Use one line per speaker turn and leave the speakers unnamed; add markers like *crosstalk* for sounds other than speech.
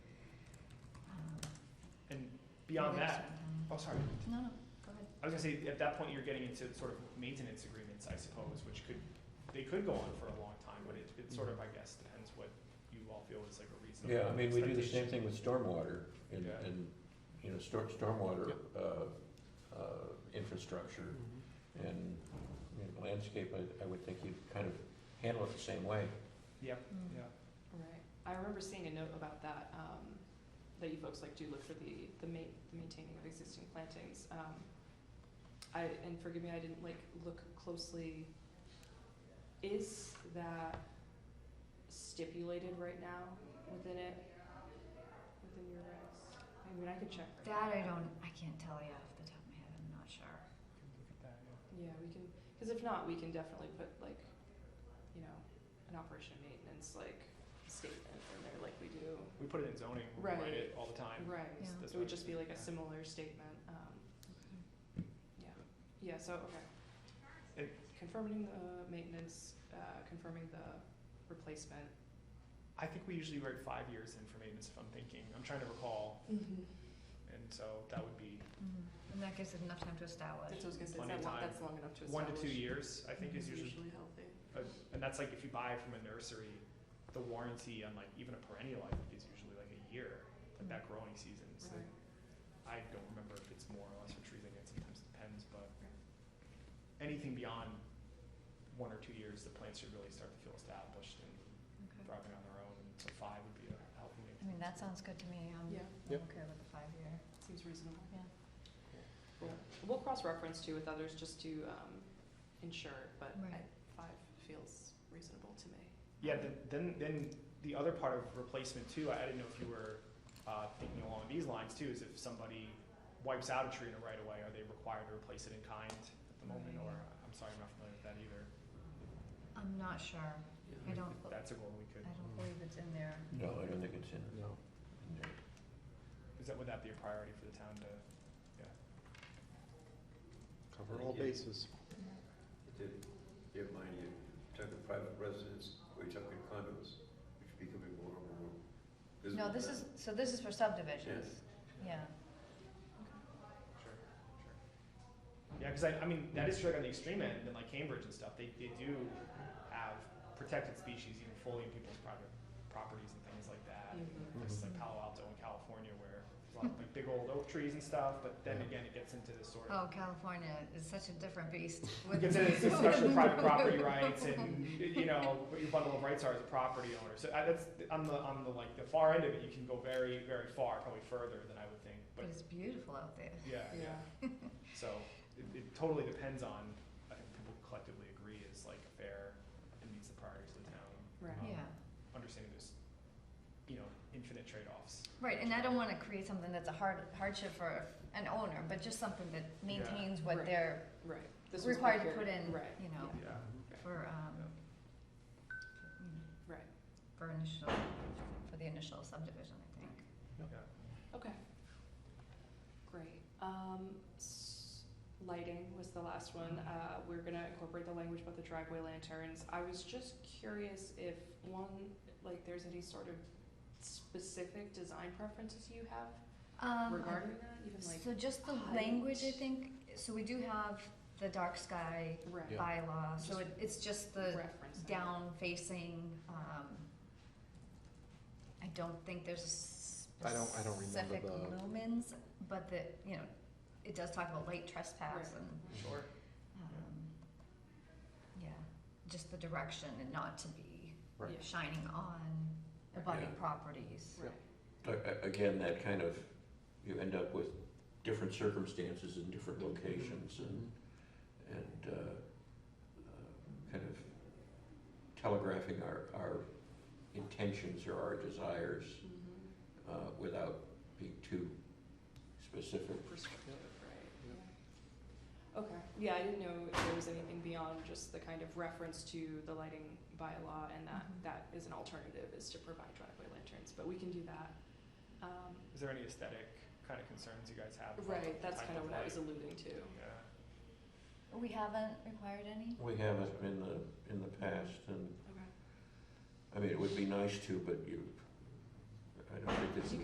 beyond that, oh, sorry.
No, no, go ahead.
I was gonna say, at that point, you're getting into sort of maintenance agreements, I suppose, which could, they could go on for a long time, but it, it sort of, I guess, depends what you all feel is like a reasonable
Yeah, I mean, we do the same
expectation.
thing with stormwater and,
Yeah.
and, you know, storm, stormwater, uh, uh, infrastructure and you know, landscape, I, I would think you'd kind of handle it the same way.
Yep,
Mm.
yeah.
Right, I remember seeing a note about that, um, that you folks like do look for the, the ma- the maintaining of existing plantings. Um, I, and forgive me, I didn't like look closely. Is that stipulated right now within it, within your regs? I mean, I could check. right
That
now.
I don't, I can't tell you off the top of my head, I'm not sure.
Look at that, yeah.
Yeah, we can, cause if not, we can definitely put like, you know, an operation maintenance like statement in there like we do.
We put it in zoning, we write it
Right.
all the time.
Right,
Yeah.
That's
it would
what-
just be like
yeah.
a similar statement, um, yeah, yeah, so, okay.
It-
Confirming the maintenance, uh, confirming the replacement.
I think we usually write five years in for maintenance, if I'm thinking, I'm trying to recall,
Mm-hmm.
and so that would be
Mhm. And that gives it enough time to establish.
That's what I was gonna say,
Plenty of
that's long,
time.
that's long enough to establish.
one to two years, I think is
It's
usually,
usually healthy.
uh, and that's like if you buy from a nursery, the warranty on like even a perennial, I think is usually like a year, like that
Mm-hmm.
growing season, so
Right.
I don't remember if it's more or less for trees, I think it sometimes depends, but anything beyond one or two years, the plants should really start to feel established and
Okay.
thriving on their own, and so five would be a healthy
I mean,
maintenance.
that sounds good to me, I'm,
Yeah.
I'm okay with the five-year,
Seems reasonable.
yeah.
Cool. We'll cross-reference too with others just to, um, ensure, but I,
Right.
five feels reasonable to me.
Yeah, then, then, then the other part of replacement too, I I didn't know if you were, uh, thinking along these lines too, is if somebody wipes out a tree in a right of way, are they required to replace it in kind at the moment, or, I'm sorry, I'm not familiar with that either.
I'm not sure, I don't,
If
I
That's a goal we could,
don't believe it's in there.
No, I don't think it's in, in there.
is that, would that be a priority for the town to, yeah?
Cover all bases.
Did, did mind you took a private residence, we took in condos, which are becoming more and more visible.
No, this
now.
is, so this is for subdivisions, yeah.
Sure, sure. Yeah, cause I, I mean, that is true like on the extreme end, and like Cambridge and stuff, they, they do have protected species even fully in people's private properties and things like that.
Mhm.
Mm-hmm.
places like Palo Alto in California where there's a lot of like big old oak trees and stuff, but then again, it gets into this sort of.
Oh, California is such a different beast
It
with. Mm-hmm.
gets
*laughs*
into this discussion of private property rights and, you know, what your bundle of rights are as a property owner. So I- that's, on the, on the like, the far end of it, you can go very, very far, probably further than I would think,
But
but,
it's beautiful out there.
yeah, yeah. So it, it totally depends on, I think people collectively agree is like fair and meets the priorities of the town.
Right.
Um,
Yeah,
Understanding this, you know, infinite trade-offs.
right, and I don't wanna create something that's a hard hardship for an owner, but just something that maintains what
Right.
they're
Right. This was
required to
procured-
put in,
Right.
you know,
Yeah.
for, um, you know,
Right,
for initial, for the initial subdivision, I think.
okay. Great, um, s- lighting was the last one, uh, we're gonna incorporate the language about the driveway lanterns, I was just curious if one, like, there's any sort of specific design preferences you have
Um,
regarding that, even like,
So just the
height.
language, I think, so we do have the dark sky
right,
Yeah.
bylaw, so it, it's just the
reference.
down facing, um, I don't think there's a
I don't- I don't remember
specific
the-
lumens, but the, you know, it does talk about light trespass
Right.
and,
Sure,
um, yeah, just the direction and not to be
Right.
Yeah.
shining on abutting
Yeah.
properties.
right,
A- a- Again, that kind of, you end up with different circumstances in different locations and, and, uh, uh, kind of telegraphing our, our intentions or our desires,
hmm
uh, without being too specific.
perspective, right? Okay, yeah, I didn't know if there was anything beyond just the kind of reference to the lighting bylaw and that,
Mhm.
that is an alternative, is to provide driveway lanterns, but we can do that. Um,
Is there any aesthetic kind of concerns you guys have? about
right,
the
that's
type
kind of what I was
light?
alluding to.
Yeah,
We haven't required any?
We haven't in the, in the past, and,
Okay.
I mean, it would be nice to, but you, I don't think this is